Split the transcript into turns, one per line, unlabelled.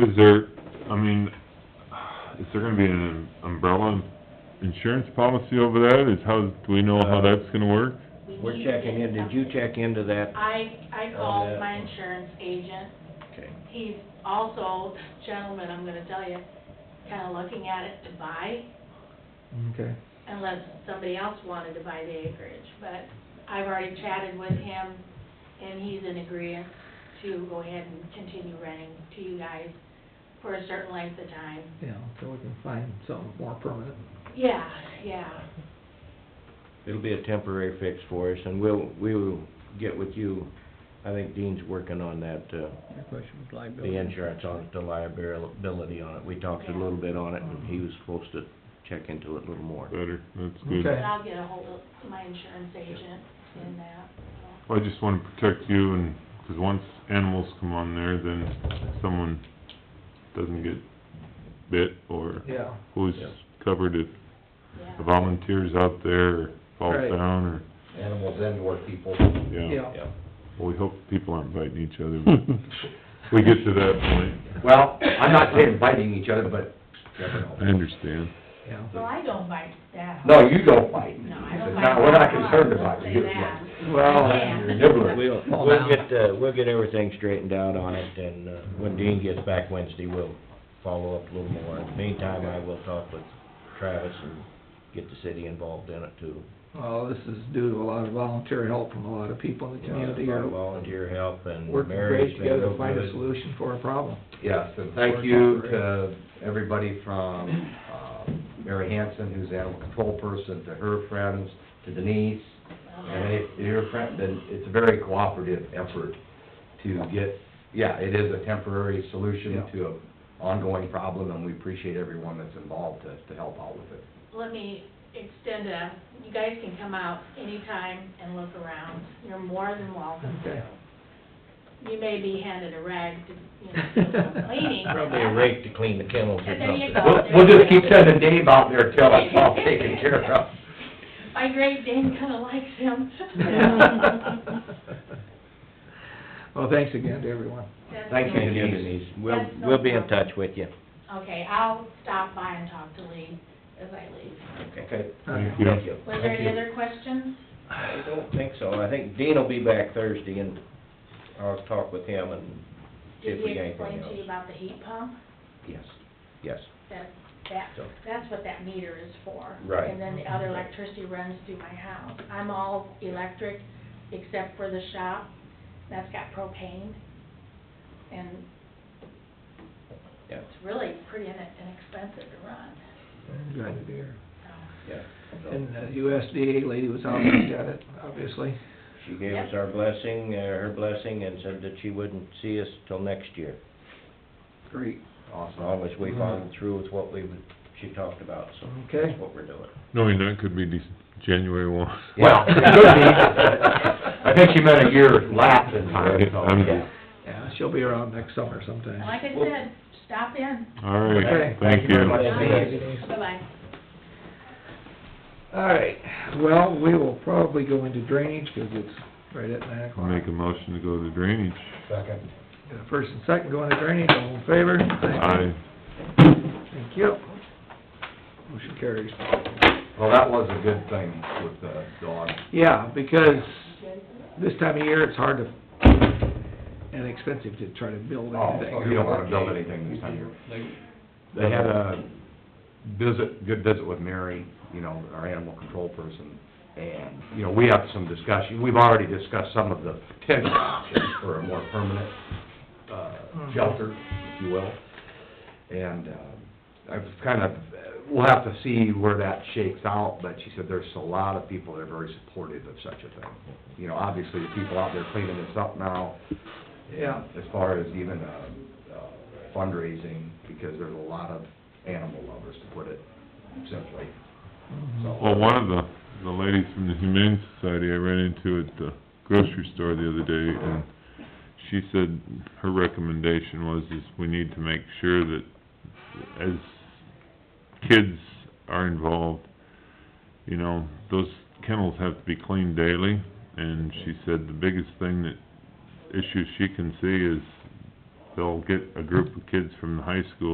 Is there, I mean, is there gonna be an umbrella insurance policy over that? Is how, do we know how that's gonna work?
We
We're
need to
checking
get
in, did you
something.
check Uh, into that?
I, I
On
called
that
my
one.
insurance agent,
Okay.
he's also, gentleman, I'm gonna tell you, kinda looking at it to buy,
Okay.
unless somebody else wanted to buy the acreage, but I've already chatted with him, and he's in agreement to go ahead and continue renting to you guys for a certain length of time.
Yeah, so we can find something more permanent.
Yeah, yeah,
It'll be a temporary fix for us, and we'll, we will get with you. I think Dean's working on that, uh,
Your question was liability.
the insurance on it, the liability on it. We talked a little bit on it, and he was supposed to check into it a little more.
Better, that's good.
but
Okay.
I'll get ahold of my insurance agent in that, so.
Well, I just wanna protect you and, 'cause once animals come on there, then someone doesn't get bit or
Yeah,
who's
Yeah.
covered if
yeah.
the volunteers out there or falls
Right.
down or,
animals and or people.
yeah.
yeah.
Well, we hope people aren't biting each other, but we get to that point.
Well, I'm not saying biting each other, but never
I
know.
understand.
Yeah.
Well, I don't bite that.
No, you don't bite.
No, I don't
It's
bite.
not- We're not concerned about
Say
you.
that.
Well,
Yeah.
You're a nibbler.
We'll,
Fall
we'll
down.
get, uh, we'll get everything straightened out on it, and, uh, when Dean gets back Wednesday, we'll follow up a little more. In the meantime, I will talk with Travis and get the city involved in it too.
well, this is due to a lot of volunteer help from a lot of people in the community
Our
are
Volunteer help and
working
Mary's
great
been
together
real
to find a
good.
solution for a problem.
Yes, and thank you to everybody from, uh, Mary Hanson, who's animal control person, to her friends, to Denise. And
Okay.
it, your friend, then it's a very cooperative effort to get, yeah, it is a temporary solution to an ongoing problem, and we appreciate everyone that's involved to, to help out with it.
Let me extend a, you guys can come out anytime and look around. You're more than welcome
Okay.
to. You may be handed a rag to, you know, do some cleaning.
Probably a rake to clean the kennels or
And there you
something.
go.
We'll, we'll just keep sending Dave out there till it's all taken care of.
My great Dane kinda likes him.
Well, thanks again to everyone.
That's
Thank
cool.
Thank you, Denise. We'll,
That's no
we'll be in
problem.
touch with you.
Okay, I'll stop by and talk to Lee as I leave.
Okay.
Thank
Okay.
you.
you.
Was there any
Thank you.
other questions?
I don't think so. I think Dean will be back Thursday, and I'll talk with him and see
Did
if we
he
got
explain
anything
to you
else.
about the heat pump?
Yes, yes.
That, that,
So-
that's what that meter is for.
Right.
And then the other electricity runs through my house. I'm all electric except for the shop, that's got propane. And
Yeah.
it's really pretty in- inexpensive to run,
Glad to hear.
so.
Yeah. So,
And the USDA lady was out and looked at it, obviously.
She gave us our blessing, uh, her blessing, and said that she wouldn't see us till next year.
Great.
As long as we
Mhm.
followed through with what we, she talked about, so
Okay.
that's what we're doing.
Knowing that could be Dec- January one.
Well, it could be. I think she meant a year lapse in time, so.
I'm-
Yeah.
Yeah, she'll be around next summer
And
sometime.
like I said, stop in,
All
Okay.
right, thank
Thank you very
you.
much.
Thank you, Denise.
bye-bye.
All right, well, we will probably go into drainage because it's right at nine
I'll
o'clock.
make a motion to go to drainage.
Second.
Got a First and second, go into drainage, all in favor?
Aye.
Thank you. Motion carries.
Well, that was a good thing with the dog.
Yeah, because this time of year, it's hard to, and expensive to try to build
Oh,
anything.
you don't wanna build anything this time of year.
Like,
They had a visit, good visit with Mary, you know, our animal control person, and, you know, we have some discussion, we've already discussed some of the potential options for a more permanent, uh, shelter, if you will. And, uh, I've kind of, we'll have to see where that shakes out, but she said there's a lot of people that are very supportive of such a thing. You know, obviously, the people out there cleaning this up now,
Yeah.
as far as even uh, uh, fundraising, because there's a lot of animal lovers, to put it simply. So-
Well, one of the, the ladies from the Humane Society I ran into at the grocery store the other day, and she said her recommendation was is we need to make sure that as kids are involved, you know, those kennels have to be cleaned daily, and she said the biggest thing that, issue she can see is they'll get a group of kids from the high school